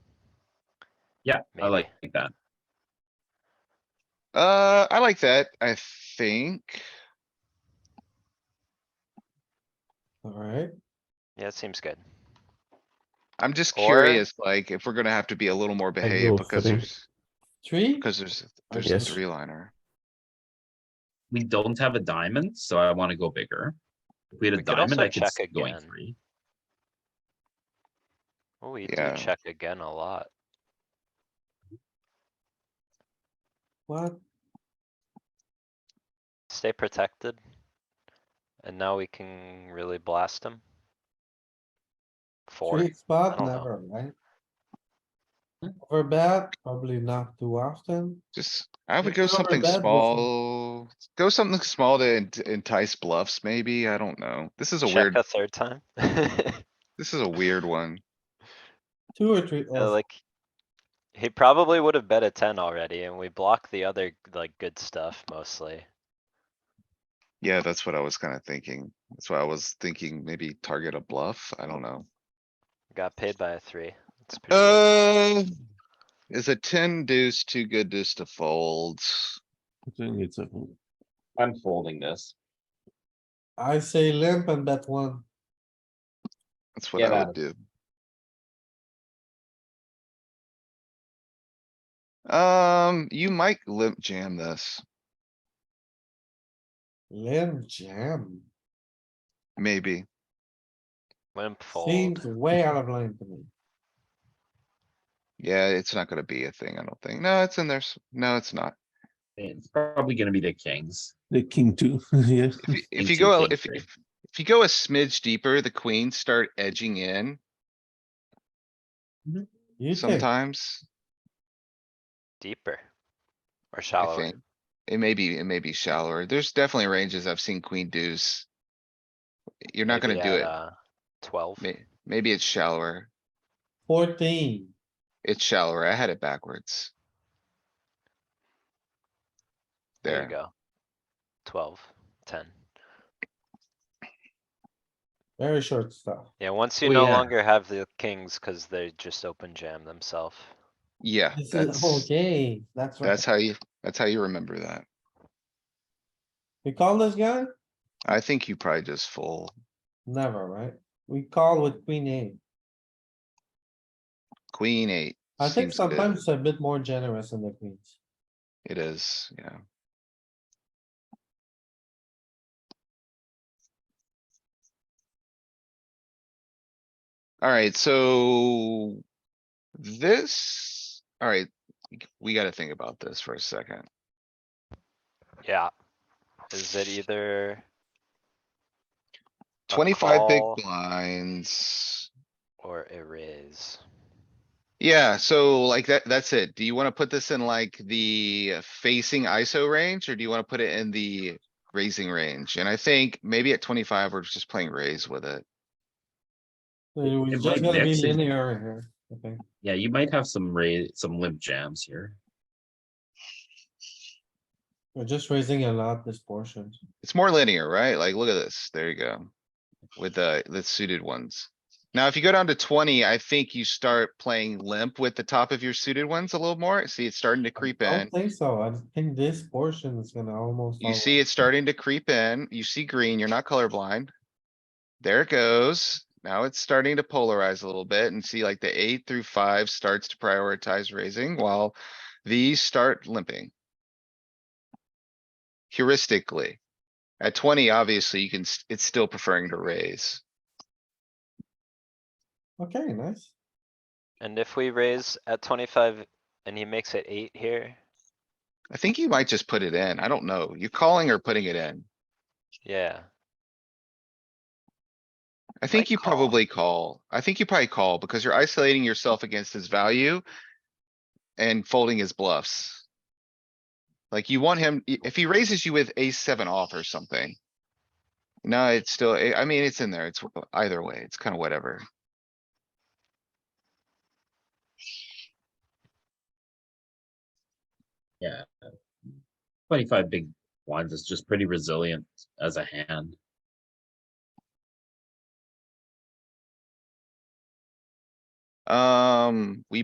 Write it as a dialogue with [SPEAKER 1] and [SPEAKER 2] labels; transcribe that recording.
[SPEAKER 1] Yeah, I
[SPEAKER 2] Maybe.
[SPEAKER 1] like that.
[SPEAKER 3] Uh, I like that, I think.
[SPEAKER 4] Alright,
[SPEAKER 2] Yeah, it seems good.
[SPEAKER 3] I'm just
[SPEAKER 2] Or-
[SPEAKER 3] curious, like, if we're gonna have to be a little more behaved
[SPEAKER 5] will
[SPEAKER 3] because
[SPEAKER 5] think.
[SPEAKER 3] there's,
[SPEAKER 4] three,
[SPEAKER 3] because there's,
[SPEAKER 4] I
[SPEAKER 3] there's a
[SPEAKER 5] guess.
[SPEAKER 3] three liner.
[SPEAKER 1] We don't have a diamond, so I wanna go bigger. If we had a
[SPEAKER 2] We could
[SPEAKER 1] diamond,
[SPEAKER 2] also
[SPEAKER 1] I could
[SPEAKER 2] check
[SPEAKER 1] see going
[SPEAKER 2] again.
[SPEAKER 1] three.
[SPEAKER 2] Well, we
[SPEAKER 3] Yeah.
[SPEAKER 2] do check again a lot.
[SPEAKER 4] what?
[SPEAKER 2] Stay protected. And now we can really blast him. Four.
[SPEAKER 4] Three spot,
[SPEAKER 2] don't know.
[SPEAKER 4] never, right? Over bet, probably not too often.
[SPEAKER 3] Just, I
[SPEAKER 4] We
[SPEAKER 3] would go
[SPEAKER 4] could
[SPEAKER 3] something
[SPEAKER 4] overbet with some-
[SPEAKER 3] small, go something small to en- to entice bluffs, maybe, I don't know. This is a
[SPEAKER 2] Check
[SPEAKER 3] weird,
[SPEAKER 2] a third time. Yeah,
[SPEAKER 3] this is a weird one.
[SPEAKER 4] Two or three, oh,
[SPEAKER 2] Like. He probably would have bet a ten already and we block the other like good stuff mostly.
[SPEAKER 3] Yeah, that's what I was kinda thinking. That's why I was thinking maybe target a bluff, I don't know.
[SPEAKER 2] Got paid by a three. It's pretty good.
[SPEAKER 3] Uh, is a ten deuce too good deuce to fold?
[SPEAKER 5] I think it's a,
[SPEAKER 1] I'm folding this.
[SPEAKER 4] I say limp and bet one.
[SPEAKER 3] That's what
[SPEAKER 1] Yeah,
[SPEAKER 3] I would do. Um, you might limp jam this,
[SPEAKER 4] Limp jam,
[SPEAKER 3] maybe.
[SPEAKER 2] Limp
[SPEAKER 4] seems
[SPEAKER 2] fold.
[SPEAKER 4] way out of line to me.
[SPEAKER 3] Yeah, it's not gonna be a thing, I don't think. No, it's in there. s- No, it's not.
[SPEAKER 1] It's probably gonna be the kings.
[SPEAKER 5] the king two, yeah.
[SPEAKER 3] If you- If
[SPEAKER 1] King
[SPEAKER 3] you
[SPEAKER 1] two,
[SPEAKER 3] go, a-
[SPEAKER 1] king
[SPEAKER 3] if,
[SPEAKER 1] three.
[SPEAKER 3] if, if you go a smidge deeper, the queens start edging in
[SPEAKER 4] You think,
[SPEAKER 3] sometimes.
[SPEAKER 2] Deeper. Or
[SPEAKER 3] I
[SPEAKER 2] shallower.
[SPEAKER 3] think. It may be, it may be shallower. There's definitely ranges I've seen queen deuce. You're not
[SPEAKER 2] Maybe
[SPEAKER 3] gonna do
[SPEAKER 2] at,
[SPEAKER 3] it.
[SPEAKER 2] uh, Twelve.
[SPEAKER 3] May- maybe it's shallower.
[SPEAKER 4] fourteen,
[SPEAKER 3] It's shallower. I had it backwards.
[SPEAKER 2] There you
[SPEAKER 3] There,
[SPEAKER 2] go. Twelve, ten.
[SPEAKER 4] very short stuff.
[SPEAKER 2] Yeah, once you
[SPEAKER 1] Well,
[SPEAKER 2] no
[SPEAKER 1] yeah.
[SPEAKER 2] longer have the kings, cause they just open jam themselves.
[SPEAKER 3] yeah,
[SPEAKER 4] This is the whole
[SPEAKER 3] that's,
[SPEAKER 4] game, that's right.
[SPEAKER 3] that's how you, that's how you remember that.
[SPEAKER 4] We call this guy?
[SPEAKER 3] I think you probably just full
[SPEAKER 4] Never, right? We call with queen eight.
[SPEAKER 3] queen eight.
[SPEAKER 4] I think
[SPEAKER 3] seems good.
[SPEAKER 4] sometimes it's a bit more generous in the queens.
[SPEAKER 3] It is, yeah. Alright, so this, alright, we gotta think about this for a second.
[SPEAKER 2] Yeah. Is it either A
[SPEAKER 3] Twenty-five big
[SPEAKER 2] call.
[SPEAKER 3] blinds.
[SPEAKER 2] or a raise?
[SPEAKER 3] Yeah, so like that, that's it. Do you wanna put this in like the facing ISO range or do you wanna put it in the raising range? And I think maybe at twenty-five, we're just playing raise with it.
[SPEAKER 4] So
[SPEAKER 1] It
[SPEAKER 4] We're
[SPEAKER 1] might
[SPEAKER 4] just gonna be
[SPEAKER 1] mix it.
[SPEAKER 4] linear here, okay?
[SPEAKER 1] Yeah, you might have some ra- some limp jams here.
[SPEAKER 4] We're just raising a lot this portion.
[SPEAKER 3] It's more linear, right? Like, look at this. There you go. With the, the suited ones. Now, if you go down to twenty, I think you start playing limp with the top of your suited ones a little more. See, it's starting to creep
[SPEAKER 4] I
[SPEAKER 3] in.
[SPEAKER 4] don't think so. I think this portion is gonna almost.
[SPEAKER 3] You see it starting to creep in. You see green, you're not colorblind. There it goes. Now it's starting to polarize a little bit and see like the eight through five starts to prioritize raising while these start limping. Heuristically, at twenty, obviously you can, s- it's still preferring to raise.
[SPEAKER 4] Okay, nice.
[SPEAKER 2] And if we raise at twenty-five and he makes it eight here,
[SPEAKER 3] I think you might just put it in. I don't know. You're calling or putting it in.
[SPEAKER 2] yeah,
[SPEAKER 3] I think you
[SPEAKER 2] call.
[SPEAKER 3] probably call. I think you probably call because you're isolating yourself against his value. And folding his bluffs. Like you want him, i- if he raises you with ace seven off or something. No, it's still, I I mean, it's in there. It's w- either way. It's kind of whatever.
[SPEAKER 1] Yeah. Twenty-five big blinds is just pretty resilient as a hand.
[SPEAKER 3] Um, we